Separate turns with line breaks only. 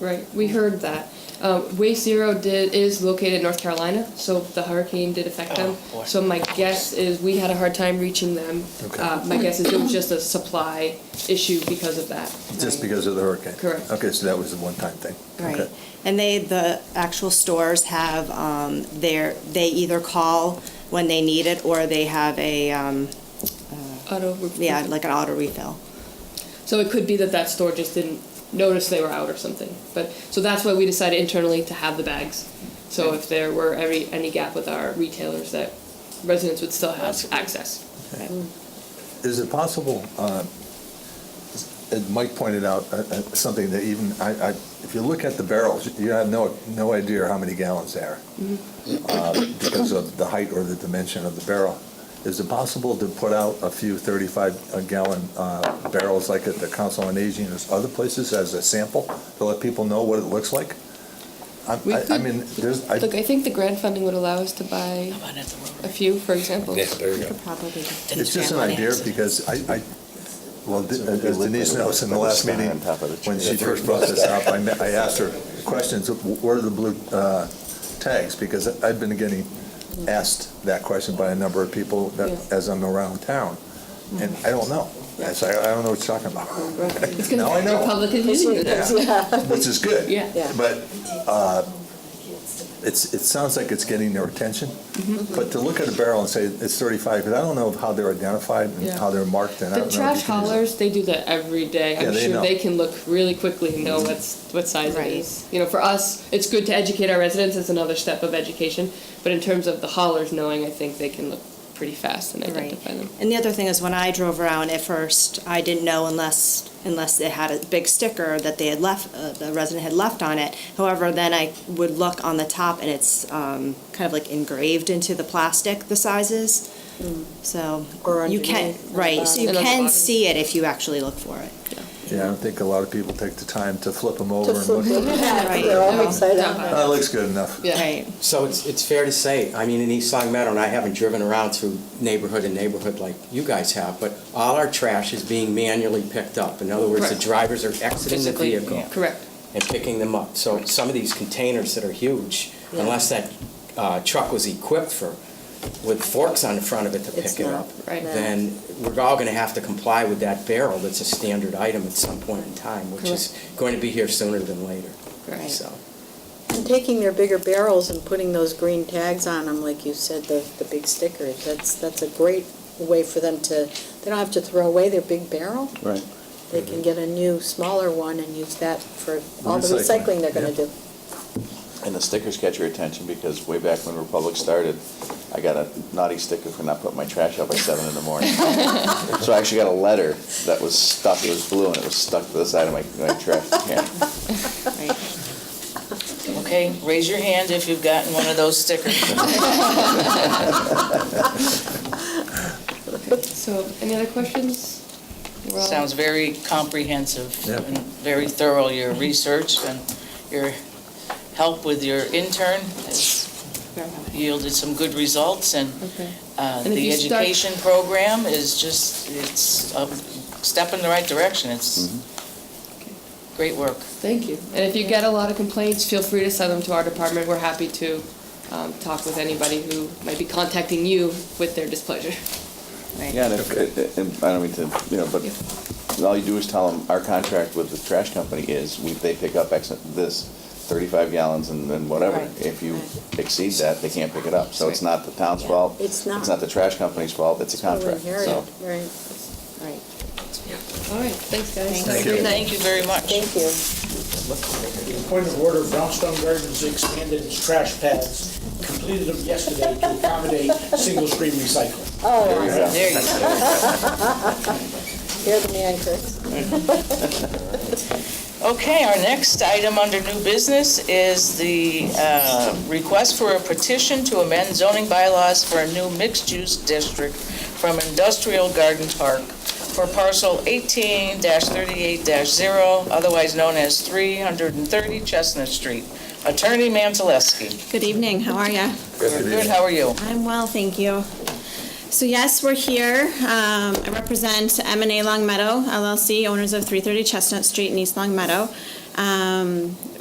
Right, we heard that. Um, Wave Zero did, is located in North Carolina, so the hurricane did affect them.
Oh, boy.
So my guess is we had a hard time reaching them.
Okay.
Uh, my guess is it was just a supply issue because of that.
Just
Right.
because of the hurricane?
Correct.
Okay, so that was a one-time thing?
Right.
Okay.
And they, the actual stores have um, their, they either call when they need it or they have a, um,
Auto.
yeah, like an auto refill.
So it could be that that store just didn't notice they were out or something. But, so that's why we decided internally to have the bags. So if there were every, any gap with our retailers, that residents would still have access.
Is it possible, uh, as Mike pointed out, uh, uh, something that even, I, I- if you look at the barrels, you have no, no idea how many gallons they are
Mm-hmm.
uh, because of the height or the dimension of the barrel. Is it possible to put out a few 35-gallon uh, barrels like at the Council on Aging or other places as a sample to let people know what it looks like? I-
We
I I
could-
mean, there's, I
Look, I think the grant funding would allow us to buy
Come on, that's the road.
a few, for example.
Yeah, there you go.
Could probably.
It's just an idea because I, I, well, as Denise knows, in the last meeting, when she first brought this up, I met- I asked her questions, of what are the blue uh, tags? Because I've been getting asked that question by a number of people that-
Yeah.
as I'm around town, and I don't know. I say, I don't know what you're talking about,
It's gonna
Now I
be
know.
Republican Union.
which is good.
Yeah. Yeah.
But uh, it's, it sounds like it's getting their attention,
Mm-hmm.
but to look at a barrel and say it's 35, because I don't know how they're identified and
Yeah.
how they're marked, and I don't know.
The
if you
trash
can use it.
haulers, they do that every day.
Yeah,
I'm
they
sure
know.
they can look really quickly and know what's, what size it
Right.
is. You know, for us, it's good to educate our residents, it's another step of education. But in terms of the haulers knowing, I think they can look pretty fast and
Right.
identify them.
And the other thing is when I drove around at first, I didn't know unless, unless it had a big sticker that they had left, uh, the resident had left on it. However, then I would look on the top and it's um, kind of like engraved into the plastic, the sizes. So
Hmm. Or
you can,
underneath, on the
right, so you
bottom. And on the
can
bottom.
see it if you actually look for it.
Yeah, I don't think a lot of people take the time to flip them over
To
and
flip them
look.
back, they're all upside
Yeah.
down.
That looks good enough.
Yeah.
Right.
So it's, it's fair to say, I mean, in East Long Meadow, and I haven't driven around through neighborhood and neighborhood like you guys have, but all our trash is being manually picked up. In other words, the
Correct.
drivers are exiting the
Physically,
vehicle
Correct.
and picking them up. So some of these containers that are huge, unless that uh, truck was equipped for, with forks on the front of it to
It's
pick it
not,
up,
right.
then we're all gonna have to comply with that barrel that's a standard item at some point in time, which is going to be here sooner than later,
Right.
so.
And taking their bigger barrels and putting those green tags on them, like you said, the, the big stickers, that's, that's a great way for them to, they don't have to throw away their big barrel.
Right.
They
Mm-hmm.
can get a new, smaller one and use that for all the
Recycling,
recycling they're gonna do.
And the stickers catch your attention because way back when Republic started, I got a naughty sticker for not putting my trash out by seven in the morning. So I actually got a letter that was stuck, it was blue and it was stuck to the side of my, my trash can.
Okay, raise your hand if you've gotten one of those stickers.
So, any other questions? We're all-
Sounds very comprehensive
Yep.
and very thorough, your research and your help with your intern has yielded some good results, and
Okay.
uh,
And if
the
you start-
education program is just, it's a step in the right direction. It's
Mm-hmm.
great work.
Thank you. And if you get a lot of complaints, feel free to send them to our department. We're happy to um, talk with anybody who might be contacting you with their displeasure.
Yeah, and if, and I don't mean to, you know, but all you do is tell them, our contract with the trash company is, we, they pick up X, this, thirty-five gallons and then whatever.
Right,
If you
right.
exceed that, they can't pick it up. So it's not the town's fault.
It's not.
It's not the trash company's fault, it's a
So we
contract,
inherit
so.
it, Right,
Right.
All right, thanks, guys.
Thank you.
Thank you very much.
thank you.
Point of order, Brownstone Gardens expanded its trash pads, completed them yesterday to accommodate single-stream recycling.
There you go.
There you go.
You're Oh, the man, Chris.
Okay, our next item under new business is the uh, request for a petition to amend zoning bylaws for a new mixed-use district from Industrial Garden Park for parcel 18-38-0, otherwise known as 330 Chestnut Street. Attorney Mantaleski.
Good evening, how are you?
Good, how are you?
I'm well, thank you. So yes, we're here. Um, I represent M and A Long Meadow LLC, owners of 330 Chestnut Street in East Long Meadow.
Um,